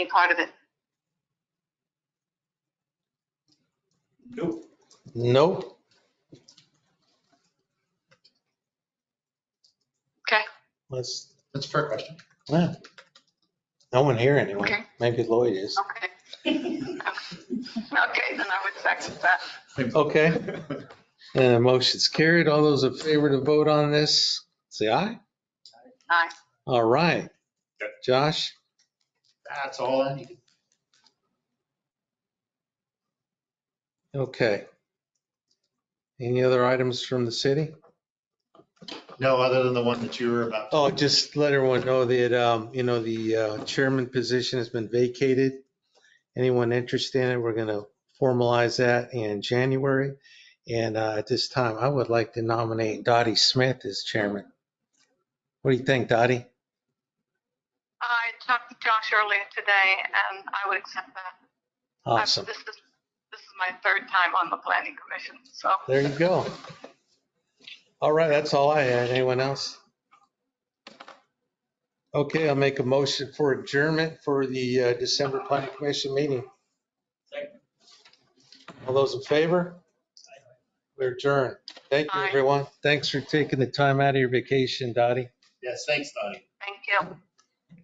any part of it. Nope. Nope. Okay. Let's, That's a fair question. yeah. No one here anyway. Okay. Maybe Lloyd is. Okay. Okay, then I would second that. Okay. And the Uh, motion's carried. All those in favor to vote on this, say aye. Aye. All right. Okay. Josh, That's all I needed. okay. Any other items from the city? No, other than the one that you were about. Oh, just let everyone know that, um, you know, the uh, chairman position has been vacated. Anyone interested in it, we're going to formalize that in January. And uh, at this time, I would like to nominate Dottie Smith as chairman. What do you think, Dottie? I talked to Josh earlier today and I would accept that. I've- Awesome. This is, this is my third time on the planning commission, so. There you go. All right, that's all I had. Anyone else? Okay, I'll make a motion for adjournment for the uh, December planning commission meeting. Second. All those in favor? We're adjourned. Thank you, Aye. everyone. Thanks for taking the time out of your vacation, Dottie. Yes, thanks, Donnie. Thank you.